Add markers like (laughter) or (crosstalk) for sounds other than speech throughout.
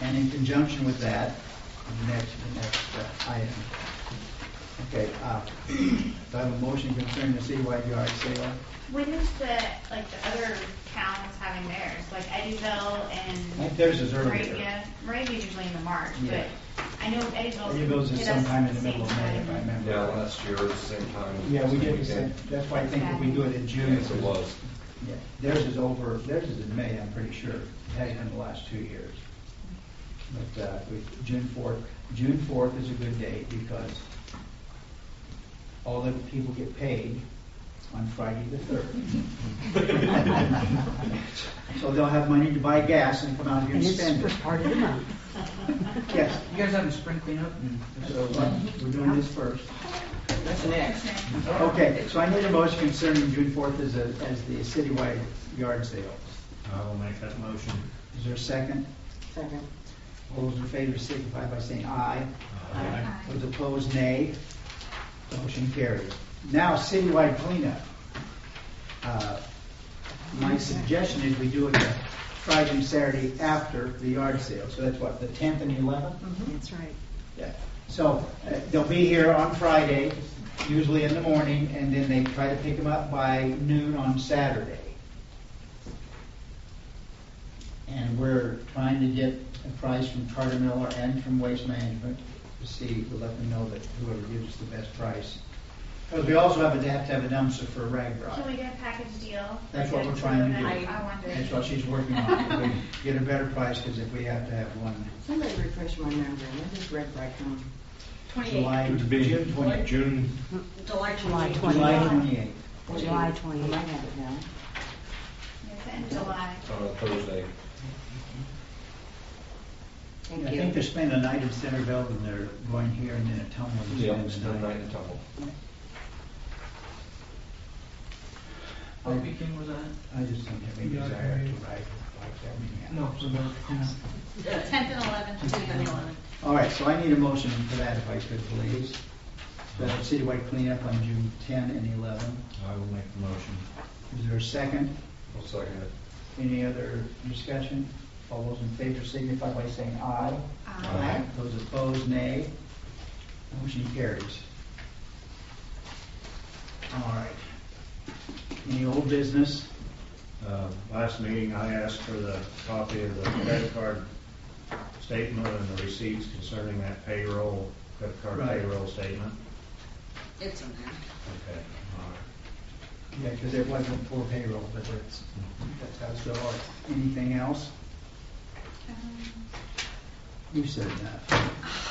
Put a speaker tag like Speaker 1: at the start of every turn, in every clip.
Speaker 1: And in conjunction with that, the next, the next uh, item. Okay, uh, do I have a motion concerning the citywide yard sale?
Speaker 2: When is the, like, the other towns having theirs, like Eddyville
Speaker 1: I think
Speaker 2: and
Speaker 1: theirs is earlier.
Speaker 2: Moravia? Moravia's usually in the March,
Speaker 1: Yeah.
Speaker 2: but I know Eddyville's.
Speaker 1: Eddyville's is
Speaker 2: hit us
Speaker 1: sometime in the
Speaker 2: at
Speaker 1: middle of
Speaker 2: same
Speaker 1: May, if I
Speaker 2: time.
Speaker 1: remember.
Speaker 3: Yeah, last year, at the same time.
Speaker 1: Yeah, we did, the same.
Speaker 3: weekend.
Speaker 1: that's why I think if we do it in June.
Speaker 3: Yes, it was.
Speaker 1: Yeah, Theirs is over, theirs is in May, I'm pretty sure. It has been the last two years. But uh, we- June 4th, June 4th is a good date because all the people get paid on Friday the 3rd. So they'll have money to buy gas and come out here
Speaker 4: And
Speaker 1: and
Speaker 4: it's
Speaker 1: spend
Speaker 4: the
Speaker 1: it.
Speaker 4: first part of the month.
Speaker 1: Yes,
Speaker 5: You guys having spring cleanup?
Speaker 1: so uh, we're doing this first.
Speaker 5: That's next.
Speaker 1: Okay, so I need a motion concerning June 4th as a, as the citywide yard sale.
Speaker 6: I will make that motion.
Speaker 1: Is there a second?
Speaker 4: Second.
Speaker 1: All those in favor signify by saying aye.
Speaker 6: Aye.
Speaker 1: Those opposed, nay. Motion carries. Now, citywide cleanup. Uh, My suggestion is we do it the Friday and Saturday after the yard sale. So that's what, the 10th and 11th?
Speaker 4: That's right.
Speaker 1: Yeah. So uh, they'll be here on Friday, usually in the morning, and then they try to pick them up by noon on Saturday. And we're trying to get a price from Carter Miller and from Waste Management to see, to let them know that whoever gives us the best price. Because we also have to have to have a dumpster for rag
Speaker 2: Can we
Speaker 1: rock.
Speaker 2: get a package deal?
Speaker 1: That's what we're
Speaker 2: Good.
Speaker 1: trying to do.
Speaker 2: I I wonder.
Speaker 1: That's what she's working on, to get a better price, because if we have to have one,
Speaker 4: Somebody refresh my memory, I just read um, right from.
Speaker 1: July,
Speaker 6: It would be
Speaker 1: June twenty,
Speaker 6: June,
Speaker 4: July twenty.
Speaker 1: July twenty-eighth.
Speaker 4: July twenty. I might have it now.
Speaker 2: (laughs) It's in
Speaker 1: (laughs)
Speaker 2: July.
Speaker 3: On a uh, Thursday.
Speaker 1: Yeah, I
Speaker 4: Thank
Speaker 1: think
Speaker 4: you.
Speaker 1: they're spending a night in Centerville, and they're going here and then at Tumblr. and
Speaker 3: Yeah,
Speaker 1: spending
Speaker 3: it's been
Speaker 1: the
Speaker 3: night in Tumble.
Speaker 5: What weekend was that?
Speaker 1: I just don't have any desire to write like that. many hours.
Speaker 5: for the cleanup.
Speaker 2: Tenth and eleventh, June eleventh.
Speaker 1: All right, so I need a motion for that if I could, please. The citywide cleanup on June 10 and 11.
Speaker 6: I will make the motion.
Speaker 1: Is there a second?
Speaker 3: I'll second it.
Speaker 1: Any other discussion? All those in favor signify by saying aye.
Speaker 2: Aye.
Speaker 1: Those opposed, nay. Motion carries. All right. Any old business?
Speaker 6: Uh, Last meeting, I asked for the copy of the credit card statement and the receipts concerning that payroll, credit card
Speaker 1: Right.
Speaker 6: payroll statement.
Speaker 4: It's in there.
Speaker 6: Okay, all right.
Speaker 1: Yeah, because it wasn't for payroll, but it's, that's how it's going. Anything else?
Speaker 2: Um,
Speaker 1: You said that.
Speaker 2: (laughs)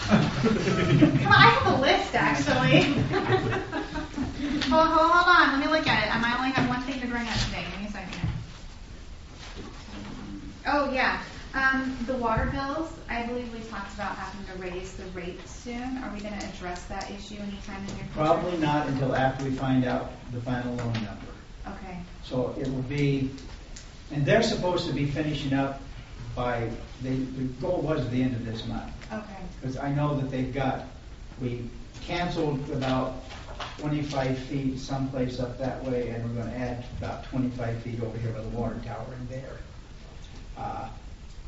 Speaker 2: Come on, I have a list, actually.
Speaker 1: (laughs)
Speaker 2: Hold, hold, hold on, let me look at it. I might only have one thing to bring up today, give me a second. Oh, yeah, um, the water bills, I believe we talked about having to raise the rate soon. Are we gonna address that issue anytime in the near future?
Speaker 1: Probably not until after we find out the final loan number.
Speaker 2: Okay,
Speaker 1: So it will be, and they're supposed to be finishing up by, the, the goal was the end of this month.
Speaker 2: okay,
Speaker 1: Because I know that they've got, we canceled about twenty-five feet someplace up that way, and we're gonna add about twenty-five feet over here by the water tower in there. Uh,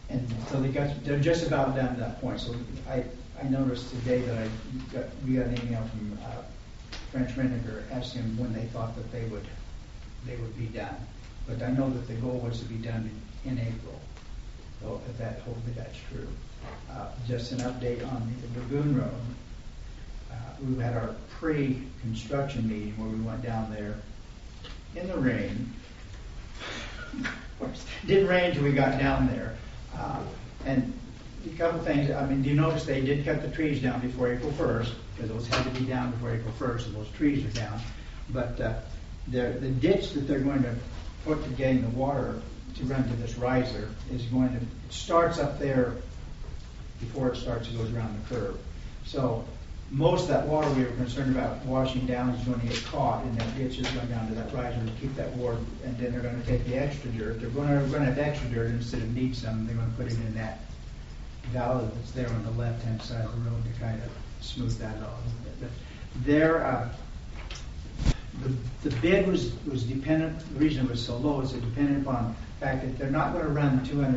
Speaker 1: And so they got, they're just about down to that point, so I, I noticed today that I got, we got an email from, uh, French Renninger asking them when they thought that they would, they would be done. But I know that the goal was to be done in April. So if that, hopefully that's true. Uh, Just an update on the Lagoon Road. Uh, We had our pre-construction meeting where we went down there in the rain. Of course, Didn't rain till we got down there. Uh, And a couple things, I mean, do you notice they did cut the trees down before April 1st? Because those had to be down before April 1st, and those trees are down. But uh, the the ditch that they're going to put to gain the water to run to this riser is going to, it starts up there before it starts, it goes around the curve. So most of that water we were concerned about washing down is going to get caught and that ditch is going down to that riser to keep that water. And then they're going to take the extra dirt. They're going to run out of extra dirt instead of need some. They're going to put it in that valve that's there on the left-hand side of the road to kind of smooth that out a little bit. But there, uh, the, the bid was, was dependent, the reason it was so low is it depended upon the fact that they're not going to run two hundred